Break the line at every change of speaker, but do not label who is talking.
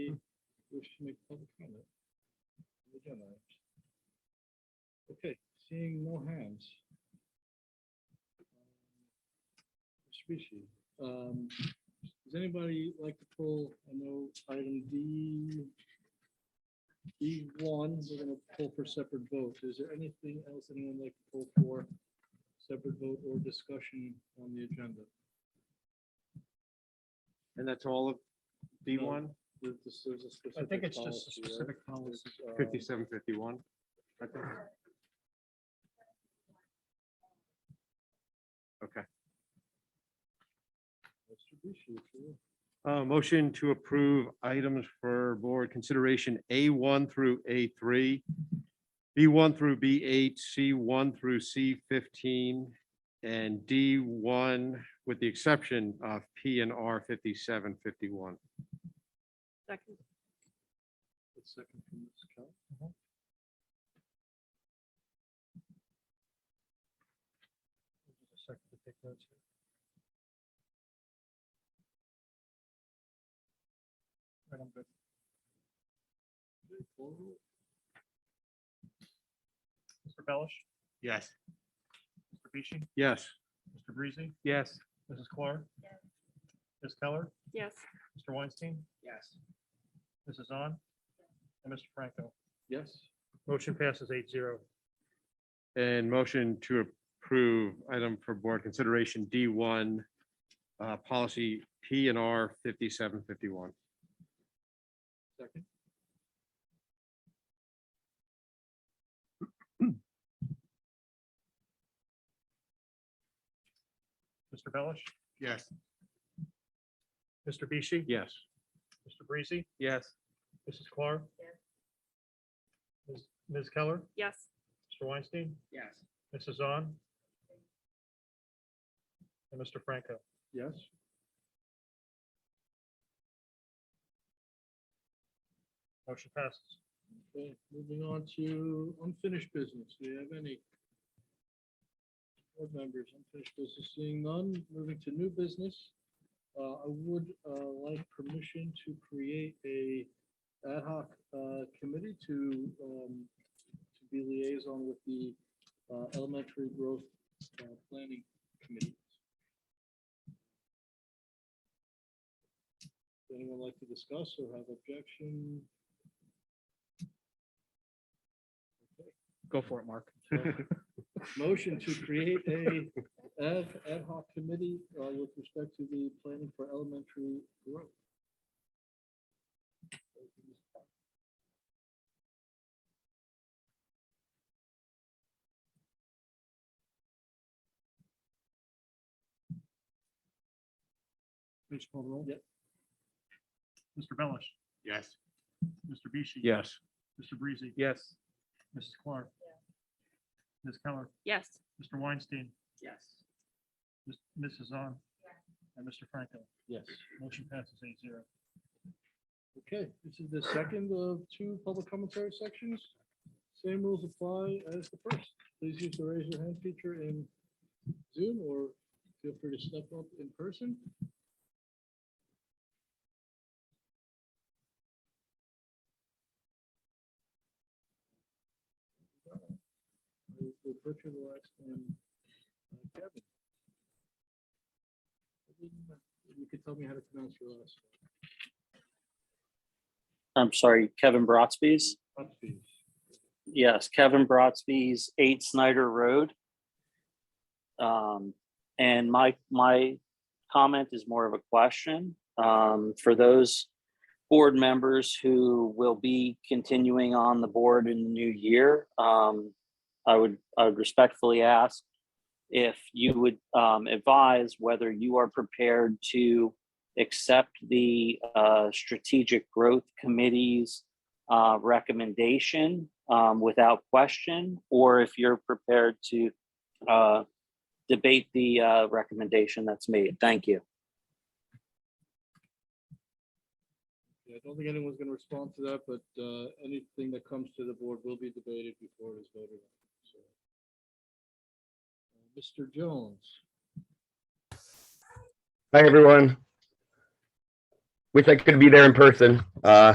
Seeing no hands. Species. Um, Does anybody like to pull, I know, item D? D one, we're gonna pull for separate vote. Is there anything else anyone would like to pull for separate vote or discussion on the agenda?
And that's all of B one,
There's- there's- there's a
I
specific
think it's just a
policy, right?
specific policy.
Um,
fifty-seven, fifty-one? I think. Okay,
Mitsubishi, sure.
uh, motion to approve items for board consideration A one through A three, B one through B eight, C one through C fifteen, and D one, with the exception of P and R fifty-seven, fifty-one.
Second.
A second from Ms. Kelly.
Just a second to take notes here. Right, I'm good.
Okay, call roll.
Mr. Bellish,
Yes.
Mr. Bishi,
Yes.
Mr. Breezy,
Yes.
Mrs. Clark. Ms. Keller,
Yes.
Mr. Weinstein. Yes. Mrs. On and Mr. Franco.
Yes,
Motion passes eight zero.
And motion to approve item for board consideration D one, uh, policy P and R fifty-seven fifty-one.
second.
Mr. Bellish,
Yes.
Mr. Bishi.
Yes.
Mr. Breezy,
Yes.
Mrs. Clark. Ms. Ms. Keller,
Yes.
Mr. Weinstein. Yes. Mrs. On and Mr. Franco.
Yes.
Motion passes.
Okay, moving on to unfinished business. Do you have any? Board members, unfinished business, seeing none, moving to new business. Uh, I would, uh, like permission to create a ad hoc, uh, committee to, um, to be liaison with the, uh, elementary growth, uh, planning committee. Does Anyone like to discuss or have objection?
Go for it, Mark.
Motion to create a ad, ad hoc committee uh, with respect to the planning for elementary growth.
Please call the roll.
Yep.
Mr. Bellish,
Yes.
Mr. Bishi.
Yes.
Mr. Breezy,
Yes.
Mrs. Clark. Ms. Keller,
Yes.
Mr. Weinstein,
Yes.
Ms- Mrs. On, and Mr. Franco.
Yes.
Motion passes eight zero.
Okay, this is the second of two public commentary sections. Same rules apply as the first. Please use the raise your hand feature in Zoom or feel free to step up in person. We'll- we'll put you last and, uh, Kevin. You could tell me how to pronounce your last. name.
I'm sorry, Kevin Brotsby's.
Upbeat.
Yes, Kevin Brotsby's Eight Snyder Road. Um, and my, my comment is more of a question, um, for those board members who will be continuing on the board in the new year. Um, I would, I would respectfully ask if you would, um, advise whether you are prepared to accept the, uh, Strategic Growth Committee's uh, recommendation um, without question, or if you're prepared to uh, debate the uh, recommendation that's made. Thank you.
Yeah, I don't think anyone's gonna respond to that, but uh, anything that comes to the board will be debated before it is voted on. so. Uh, Mr. Jones,
Hi, everyone. Wish I could be there in person. Uh,